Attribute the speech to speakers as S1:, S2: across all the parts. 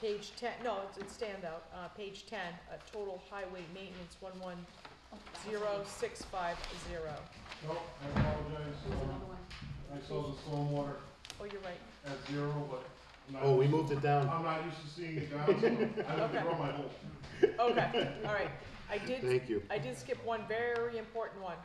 S1: page ten, no, it's, it's standout, uh, page ten, uh, total highway maintenance, one one zero six five zero.
S2: No, Oh, I apologize,
S3: There's another
S2: um,
S3: one.
S2: I saw the stormwater
S1: Oh, you're right.
S2: at zero, but I'm not-
S4: Oh, we moved it down.
S2: I'm not used to seeing it down, so I have to
S1: Okay.
S2: grow my whole.
S1: Okay, all right. I did,
S4: Thank you.
S1: I did skip one very important one.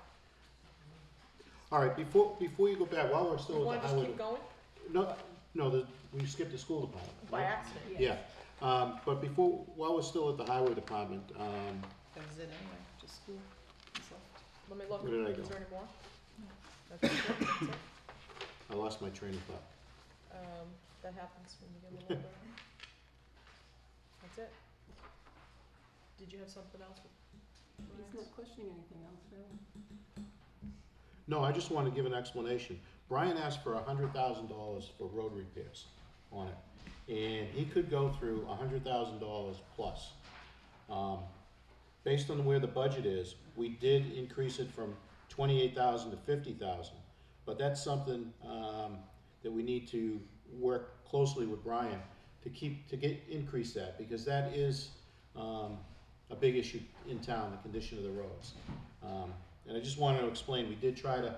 S4: All right, before, before you go back, while we're
S1: You
S4: still with
S1: wanna
S4: the
S1: just keep
S4: highway.
S1: going?
S4: No, no, the- we skipped the school department.
S1: By
S4: right?
S1: accident.
S4: Yeah, um, but before, while we're still at the highway department, um,
S5: That was it anyway, just school. That's all.
S1: Let me look.
S4: Where did I
S1: Is
S4: go?
S1: there any more? That's it, that's it.
S4: I lost my train of thought.
S1: Um, that happens when you get a little older. That's it. Did you have something else?
S3: He's not questioning anything else, really.
S4: No, I just want to give an explanation. Brian asked for hundred thousand dollars for road repairs on it, and he could go through hundred thousand dollars plus. Um, based on where the budget is, we did increase it from twenty-eight thousand to fifty thousand, but that's something um, that we need to work closely with Brian to keep to get increase that because that is um, a big issue in town, the condition of the roads. Um, and I just wanted to explain, we did try to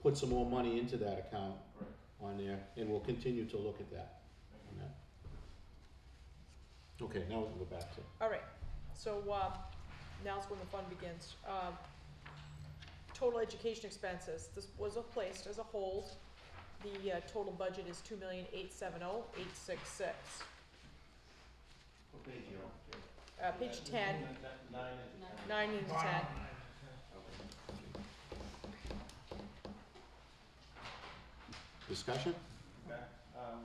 S4: put some more money into that account
S2: Right.
S4: on there, and we'll continue to look at that. on that. Okay, now we can go back to.
S1: All right, so, uh, now's when the fun begins. Um, total education expenses, this was placed as a hold. The, uh, total budget is two million eight seven oh eight six six. Uh, page ten,
S6: Nine is
S3: Nine.
S1: nine into ten.
S4: Discussion?
S6: back. Um,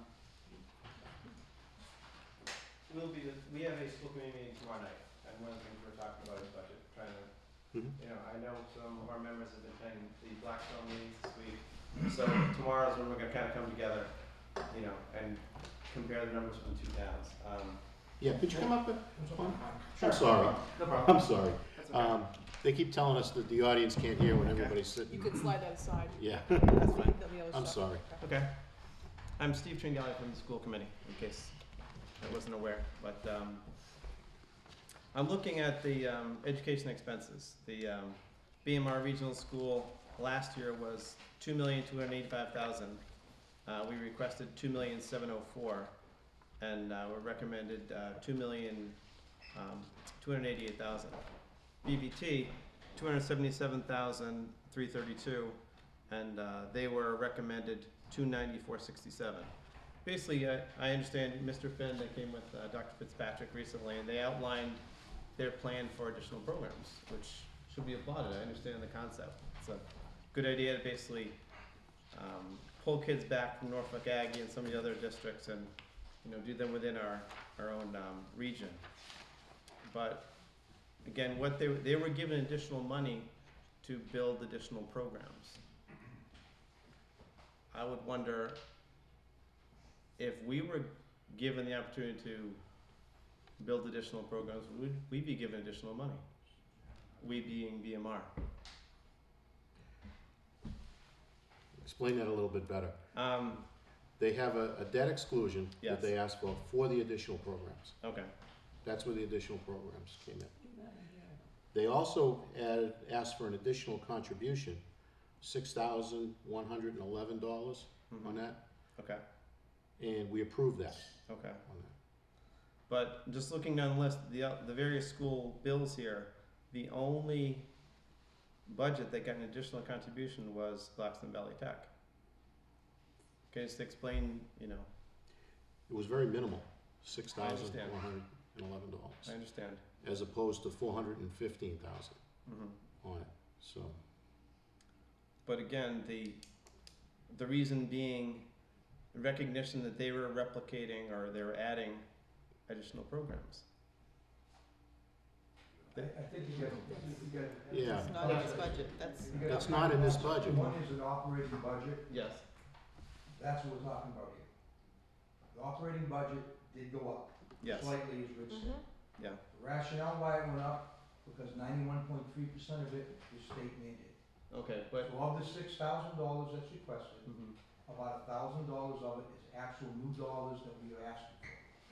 S6: We'll be, we have a school committee meeting tomorrow night, and one of the things we're talking about is budget, trying to,
S4: Mhm.
S6: you know, I know some of our members have been attending the Blackstone meetings this week. So tomorrow's when we're gonna kind of come together, you know, and compare the numbers from the two towns. Um,
S4: Yeah, could you come up and,
S6: sure,
S4: I'm sorry,
S6: No
S4: I'm
S6: problem.
S4: sorry.
S6: That's okay.
S4: Um, they keep telling us that the audience can't hear when everybody's
S1: You
S4: sitting.
S1: could slide that aside.
S4: Yeah,
S1: That's fine. There'll be other
S4: I'm
S1: stuff.
S4: sorry.
S1: Okay.
S6: Okay. I'm Steve Tringali from the school committee, in case I wasn't aware, but, um, I'm looking at the, um, education expenses. The, um, BMR Regional School last year was two million, two hundred eighty-five thousand. Uh, we requested two million, seven oh four, and, uh, we recommended, uh, two million, um, two hundred eighty-eight thousand. BVT, two hundred seventy-seven thousand, three thirty-two, and uh, they were recommended 294.67. Basically, I, I understand Mr. Finn, they came with uh, Dr. Fitzpatrick recently, and they outlined their plan for additional programs, which should be applauded. I understand the concept. It's a good idea to basically um, pull kids back from Norfolk Aggie and some of the other districts and, you know, do them within our, our own um, region. But again, what they, they were given additional money to build additional programs. I would wonder if we were given the opportunity to build additional programs, would we be given additional money? We being BMR.
S4: Explain that a little bit better.
S6: Um,
S4: They have a, a debt exclusion
S6: Yes.
S4: that they asked for, for the additional programs.
S6: okay,
S4: That's where the additional programs came in.
S3: Do that again.
S4: They also added, asked for an additional contribution, six thousand one hundred and eleven dollars on that,
S6: Mm-hmm. okay,
S4: and we approved that
S6: okay.
S4: on that.
S6: But just looking down the list, the, uh, the various school bills here, the only budget that got an additional contribution was Blackstone Valley Tech. Okay, just explain, you know,
S4: It was very minimal, six
S6: I
S4: thousand
S6: understand.
S4: one hundred and eleven
S6: I
S4: dollars,
S6: understand.
S4: as opposed to four hundred and fifteen thousand
S6: Mm-hmm.
S4: on it, so.
S6: But again, the the reason being recognition that they were replicating or they were adding additional programs.
S7: I I think you get, you get.
S4: Yeah.
S5: It's not in his budget, that's,
S7: You get-
S4: That's not in this budget.
S7: One is an operating budget,
S6: Yes.
S7: that's what we're talking about here. The operating budget did go up
S6: Yes.
S7: slightly, as Rich
S3: Mm-hmm.
S7: said.
S1: Mhm.
S6: Yeah.
S7: The Rationale why it went up, because ninety-one point three percent of it is state mandated.
S6: Okay, but
S7: So of the six thousand dollars that's requested,
S6: Mhm.
S7: about a thousand dollars of it is actual new dollars that we are asking